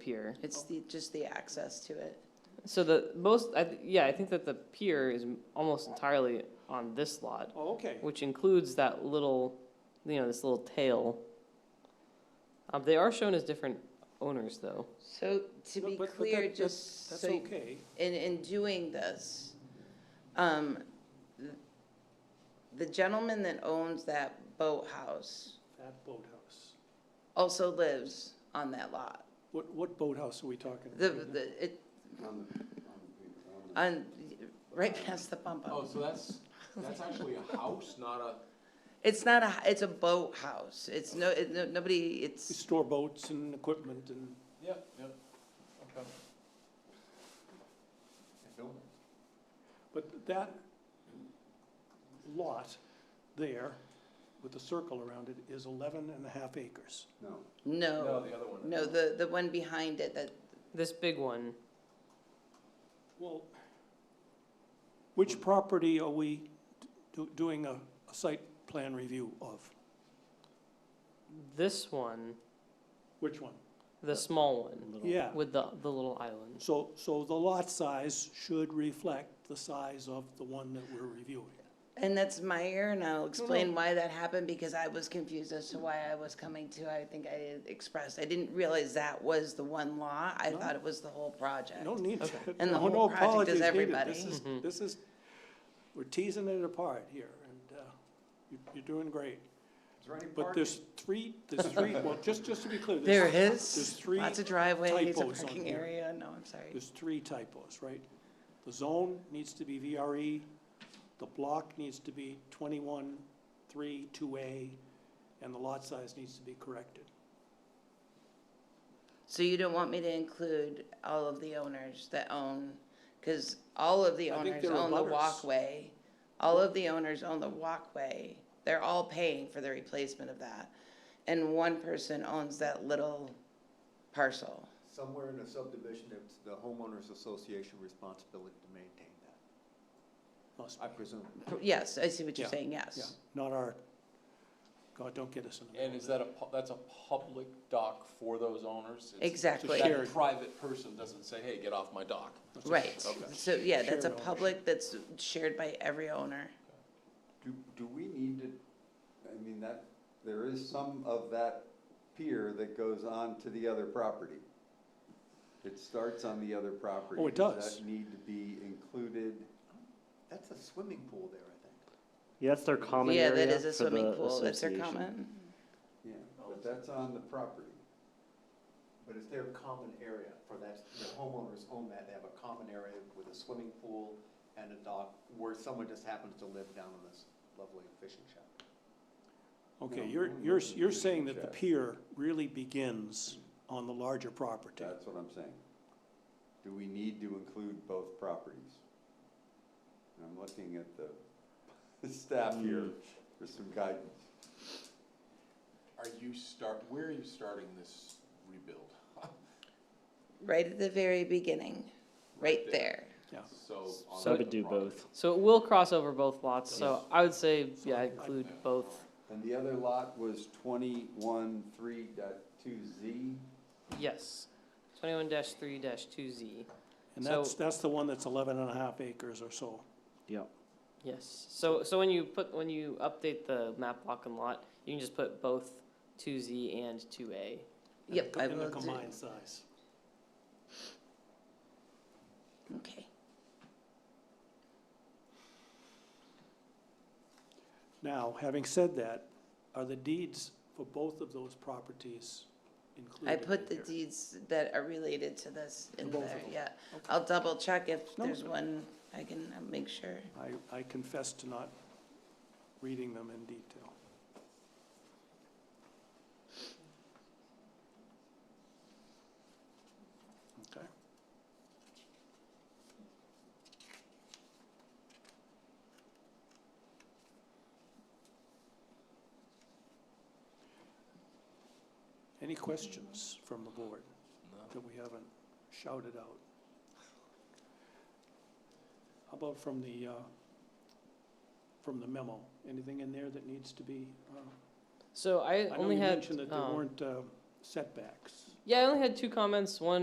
pier. It's the, just the access to it. So the most, I, th- yeah, I think that the pier is m- almost entirely on this lot, Oh, okay. which includes that little, you know, this little tail. Um, they are shown as different owners, though. So to No, be but- but clear, that- that- just That's so, you- okay. in, in doing this, um, th- the gentleman that owns that boathouse That boathouse. also lives on that lot. What, what boathouse are we talking? The, about? the, it, On the, on the, on on, right past the pump the. out. Oh, so that's, that's actually a house, not a, It's not a, it's a boathouse. It's no, it, no, nobody, We it's, Store boats and equipment and, yep, yep, okay. Building. but that lot there with the circle around it is eleven and a half acres. No, no, no, the other one. no, the, the one behind it that, This big one, Well, which property are we do, doing a, a site plan review of? this one, Which one? the small one, Yeah, with the, the little island. so, so the lot size should reflect the size of the one that we're reviewing. and that's Meyer, and I'll Mm-hmm. explain why that happened, because I was confused as to why I was coming to, I think I expressed, I didn't realize that was the one law. I No. thought it was the whole project. No need to. And the no- no whole project is apologies needed. everybody. This is, Mhm. this is, we're teasing it apart here, and, uh, you, you're doing great. Is there any But parking? there's three, there's three, well, just, just to be clear. There there's- There's is, three, lots of driveways, a typos on parking here. area, no, I'm sorry. there's three typos, right? The zone needs to be VRE, the block needs to be twenty-one, three, two A, and the lot size needs to be corrected. So you don't want me to include all of the owners that own, because all of the I think owners they're own the abutters. walkway. All of the owners own the walkway. They're all paying for the replacement of that. And one person owns that little parcel. Somewhere in the subdivision, it's the homeowners association responsibility to maintain that, Must I be. presume. Yes, I see what you're Yeah, saying, Yeah, yes. not our, God, don't get us in the middle. And is that a, pu- that's a public dock for those owners? It's- Exactly. It's a shared- That private person doesn't say, hey, get off my dock. That's a- Right. Okay. So, yeah, that's a Shared ownership. public that's shared by every owner. Do, do we need to, I mean, that, there is some of that pier that goes on to the other property. It starts on the other property. Oh, it Does does. that need to be included? That's a swimming pool there, I think. Yeah, that's their common Yeah, area that is a for the swimming pool. That's their association. comment. Yeah, but that's on the property. But it's their common area for that, the homeowners own that, they have a common area with a swimming pool and a dock where someone just happens to live down in this lovely fishing shack. Okay, No, you're, no, you're, no, you're no, saying that the Jeff. pier really begins on the larger property. That's what I'm saying. Do we need to include both properties? And I'm looking at the staff here for some guidance. Are you start, where are you starting this rebuild? Right at the very beginning, right there. So. on So I the would do property. both. So it will cross over both lots, so I would say, yeah, include both. And the other lot was twenty-one, three dot two Z. Yes, twenty-one dash three dash two Z. And So- that's, that's the one that's eleven and a half acres or so. Yep. Yes, so, so when you put, when you update the map block and lot, you can just put both two Z and two A. and Yep, the- I And the will do- combined size. Okay. Now, having said that, are the deeds for both of those properties included I in put the here? deeds that are related to this in both of there, them. yeah. Okay. I'll double check if No. there's one, I can uh, make sure. I, I confess to not reading them in detail. Okay. Any questions from the board No. that we haven't shouted out? How about from the, uh, from the memo? Anything in there that needs to be? uh, So I I know only you had, mentioned that there um, weren't uh, setbacks. Yeah, I only had two comments. One